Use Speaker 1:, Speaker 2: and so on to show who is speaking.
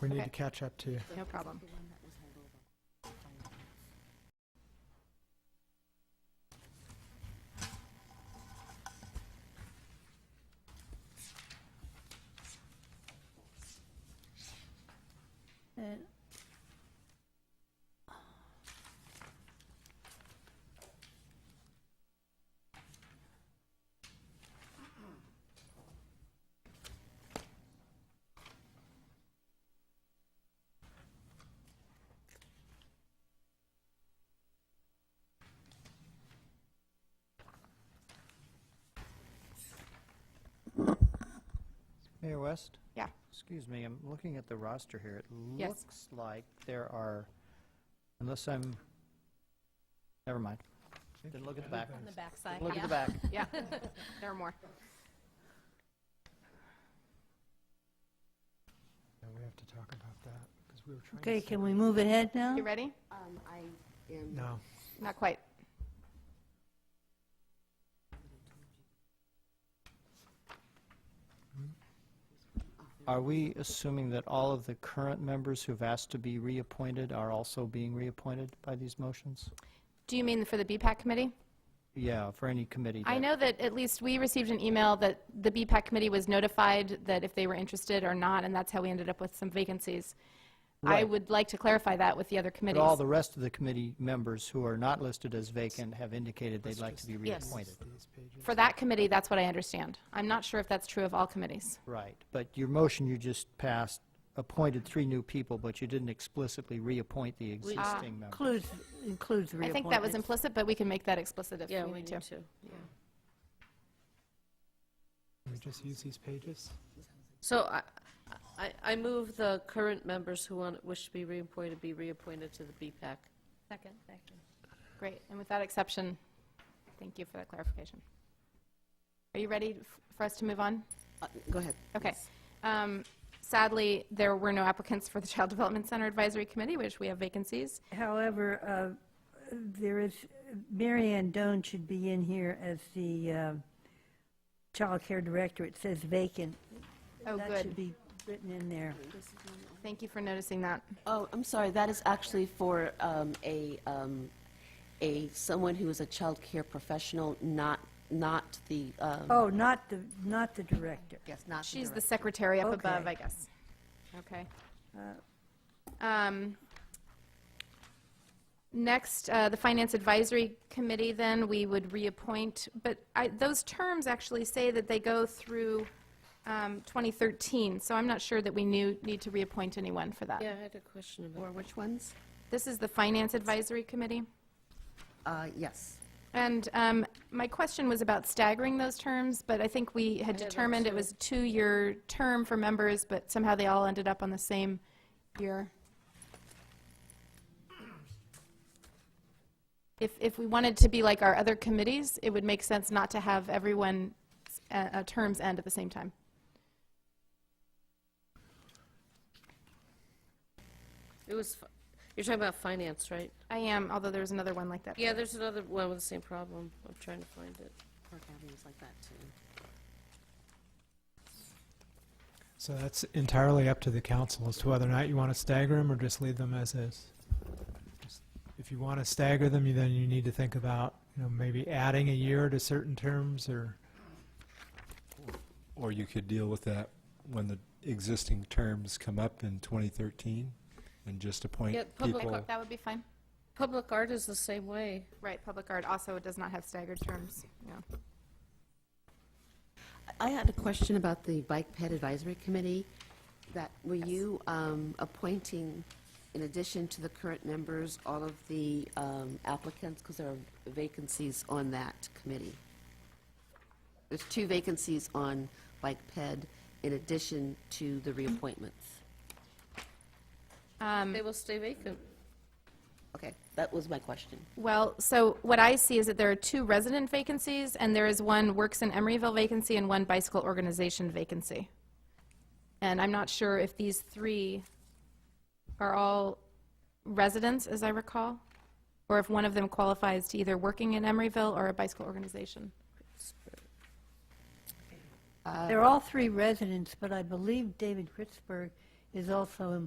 Speaker 1: we need
Speaker 2: Okay.
Speaker 1: to catch up to.
Speaker 2: No problem.
Speaker 3: And-
Speaker 4: Mayor West?
Speaker 2: Yeah.
Speaker 4: Excuse me, I'm looking at the roster here. It
Speaker 2: Yes.
Speaker 4: looks like there are, unless I'm, never mind. Then look at the back.
Speaker 5: On the backside,
Speaker 4: Look at
Speaker 5: yeah.
Speaker 4: the back.
Speaker 2: Yeah, there are more.
Speaker 1: Yeah, we have to talk about that because we were trying. to
Speaker 3: Okay,
Speaker 1: see-
Speaker 3: can we move ahead now?
Speaker 2: You ready?
Speaker 6: Um, I am,
Speaker 1: No,
Speaker 2: Not quite.
Speaker 4: Are we assuming that all of the current members who've asked to be reappointed are also being reappointed by these motions?
Speaker 2: Do you mean for the BPAC committee?
Speaker 4: Yeah, for any committee.
Speaker 2: I
Speaker 4: that-
Speaker 2: know that at least we received an email that the BPAC committee was notified that if they were interested or not, and that's how we ended up with some vacancies. I
Speaker 4: Right.
Speaker 2: would like to clarify that with the other
Speaker 4: But all
Speaker 2: committees.
Speaker 4: the rest of the committee members who are not listed as vacant have indicated they'd like to be
Speaker 2: Yes.
Speaker 4: reappointed.
Speaker 1: these pages.
Speaker 2: For that committee, that's what I understand. I'm not sure if that's true of all committees.
Speaker 4: Right, but your motion you just passed appointed three new people, but you didn't explicitly reappoint the existing members.
Speaker 3: Includes, includes reappointments.
Speaker 2: I think that was implicit, but we can make that explicit if
Speaker 5: Yeah,
Speaker 2: we need to.
Speaker 5: yeah.
Speaker 1: Can we just use these pages?
Speaker 5: So I, I, I move the current members who want, wish to be reappointed, be reappointed to the BPAC.
Speaker 3: Second, second.
Speaker 2: Great, and with that exception, thank you for that clarification. Are you ready f- for us to move on?
Speaker 6: uh, go ahead.
Speaker 2: Okay.
Speaker 6: Yes.
Speaker 2: Um, Sadly, there were no applicants for the Child Development Center Advisory Committee, which we have vacancies.
Speaker 3: However, uh, there is, Mary Ann Doan should be in here as the uh, child care director. It says vacant.
Speaker 2: Oh,
Speaker 3: That should
Speaker 2: good.
Speaker 3: be written in there.
Speaker 2: Thank you for noticing that.
Speaker 6: Oh, I'm sorry, that is actually for um, a, um, a, someone who is a child care professional, not, not the, um,
Speaker 3: Oh, not the, not the director.
Speaker 6: yes, not the
Speaker 2: She's the
Speaker 6: director.
Speaker 2: secretary up above,
Speaker 3: Okay.
Speaker 2: I guess. Okay. Um, Next, uh, the Finance Advisory Committee, then, we would reappoint, but I- those terms actually say that they go through um, 2013, so I'm not sure that we knew- need to reappoint anyone for that.
Speaker 5: Yeah, I had a question about
Speaker 6: Or which ones?
Speaker 2: This is the Finance Advisory Committee.
Speaker 6: Uh, Yes.
Speaker 2: And um, my question was about staggering those terms, but I think we had
Speaker 5: I did that
Speaker 2: determined it
Speaker 5: too.
Speaker 2: was a two-year term for members, but somehow they all ended up on the same year. If, if we wanted to be like our other committees, it would make sense not to have everyone's uh, uh, terms end at the same time.
Speaker 5: It was, fi- you're talking about finance, right?
Speaker 2: I am, although there was another one like that.
Speaker 5: Yeah, there's another one with the same problem. I'm trying to find it.
Speaker 6: Park Avenue's like that, too.
Speaker 1: So that's entirely up to the council as to whether or not you want to stagger them or just leave them as is. Just- If you want to stagger them, you- then you need to think about, you know, maybe adding a year to certain terms or,
Speaker 7: Or you could deal with that when the existing terms come up in 2013 and just appoint
Speaker 5: Yeah, public-
Speaker 7: people.
Speaker 2: That would be fine.
Speaker 5: Public art is the same way.
Speaker 2: Right, Public Art also does not have staggered terms, yeah.
Speaker 6: I had a question about the Bike Ped Advisory Committee, that, were you um, appointing, in addition to the current members, all of the um, applicants, because there are vacancies on that committee? There's two vacancies on Bike Ped in addition to the reappointments.
Speaker 2: Um,
Speaker 5: They will stay vacant.
Speaker 6: Okay, that was my question.
Speaker 2: Well, so what I see is that there are two resident vacancies, and there is one Works in Emeryville vacancy and one Bicycle Organization vacancy. And I'm not sure if these three are all residents, as I recall, or if one of them qualifies to either working in Emeryville or a bicycle organization.
Speaker 3: They're all three residents, but I believe David Kritzberg is also